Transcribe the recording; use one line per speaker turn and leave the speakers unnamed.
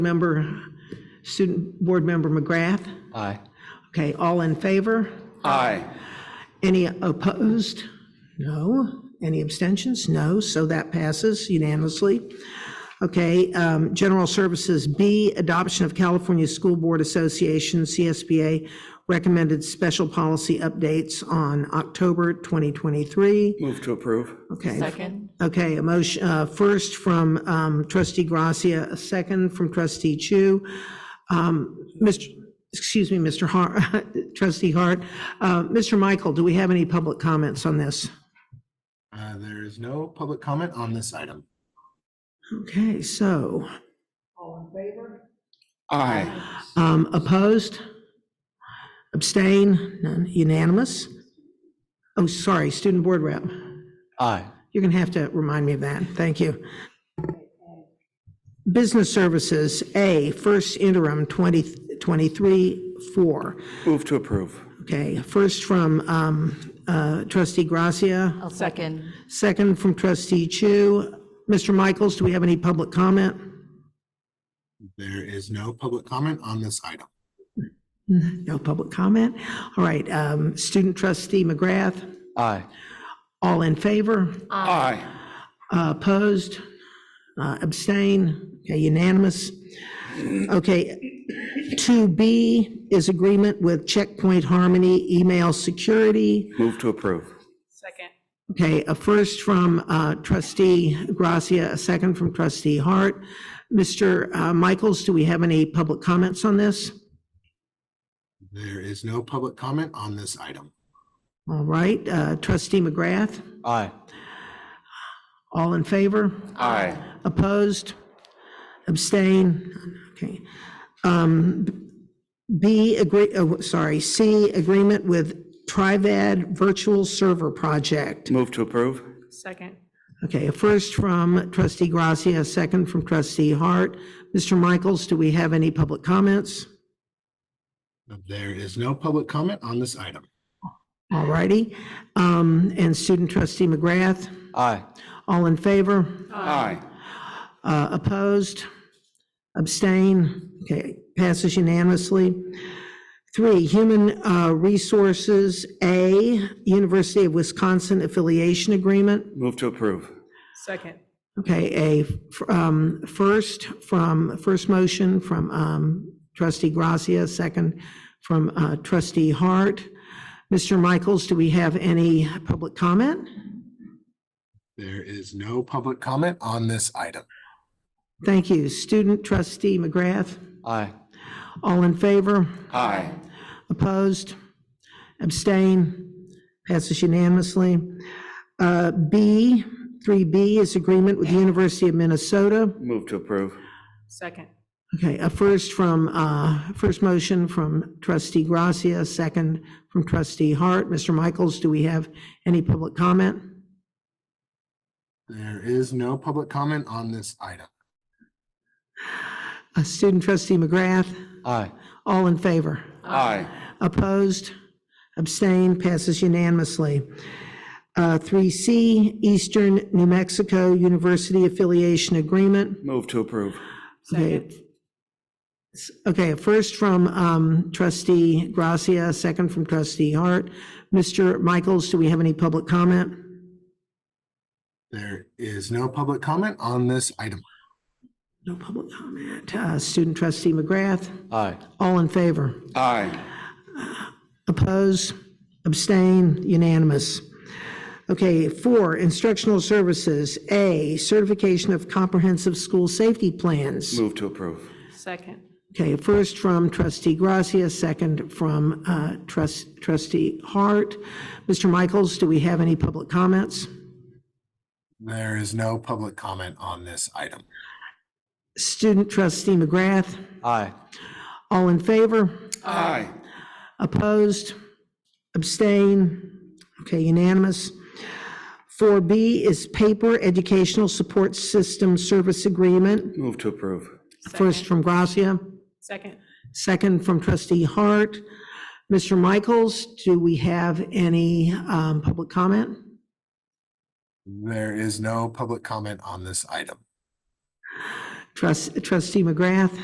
Member, Student Board Member McGrath.
Aye.
Okay, all in favor?
Aye.
Any opposed? No. Any abstentions? No. So that passes unanimously. Okay, um, General Services B, Adoption of California School Board Association, CSBA, recommended special policy updates on October 2023.
Move to approve.
Okay.
Second.
Okay, a motion, uh, first from um, trustee Gracia, a second from trustee Chu. Um, Mr., excuse me, Mr. Hart, trustee Hart. Uh, Mr. Michael, do we have any public comments on this?
Uh, There is no public comment on this item.
Okay, so,
Aye.
um, opposed? Abstain? None, unanimous? Oh, sorry, student board rep.
Aye.
You're going to have to remind me of that. Thank you. Business Services, A, first interim 2023-4.
Move to approve.
Okay, first from um, uh, trustee Gracia,
I'll second.
second from trustee Chu. Mr. Michaels, do we have any public comment?
There is no public comment on this item.
No public comment. All right, um, student trustee McGrath,
Aye.
all in favor?
Aye.
Uh, Opposed? Uh, Abstain? Okay, unanimous. Okay, 2B is agreement with Checkpoint Harmony Email Security.
Move to approve.
Okay, a first from uh, trustee Gracia, a second from trustee Hart. Mr. uh, Michaels, do we have any public comments on this?
There is no public comment on this item.
All right, uh, trustee McGrath,
Aye.
all in favor?
Aye.
Opposed? Abstain? Okay. Um, B, agree, oh, sorry, C, agreement with Trivad Virtual Server Project.
Move to approve.
Second.
Okay, a first from trustee Gracia, a second from trustee Hart. Mr. Michaels, do we have any public comments?
There is no public comment on this item.
All righty. Um, And student trustee McGrath,
Aye.
all in favor?
Aye.
Uh, Opposed? Abstain? Okay, passes unanimously. Three, Human uh, Resources, A, University of Wisconsin Affiliation Agreement.
Move to approve.
Second.
Okay, a um, first from, first motion from um, trustee Gracia, second from uh, trustee Hart. Mr. Michaels, do we have any public comment?
There is no public comment on this item.
Thank you. Student trustee McGrath,
Aye.
all in favor?
Aye.
Opposed? Abstain? Passes unanimously. Uh, B, 3B is agreement with the University of Minnesota.
Move to approve.
Second.
Okay, a first from, uh, first motion from trustee Gracia, second from trustee Hart. Mr. Michaels, do we have any public comment?
There is no public comment on this item.
Uh, Student trustee McGrath,
Aye.
all in favor?
Aye.
Opposed? Abstained? Passes unanimously. Uh, 3C, Eastern New Mexico University Affiliation Agreement.
Move to approve.
Okay. Okay, first from um, trustee Gracia, second from trustee Hart. Mr. Michaels, do we have any public comment?
There is no public comment on this item.
No public comment. Uh, Student trustee McGrath,
Aye.
all in favor?
Aye.
Oppose? Abstain? Unanimous. Okay, four, instructional services. A, certification of comprehensive school safety plans.
Move to approve.
Second.
Okay, first from trustee Gracia, second from uh, trus- trustee Hart. Mr. Michaels, do we have any public comments?
There is no public comment on this item.
Student trustee McGrath,
Aye.
all in favor?
Aye.
Opposed? Abstain? Okay, unanimous. 4B is paper educational support system service agreement.
Move to approve.
First from Gracia,
Second.
second from trustee Hart. Mr. Michaels, do we have any um, public comment?
There is no public comment on this item.
Trust- Trustee McGrath?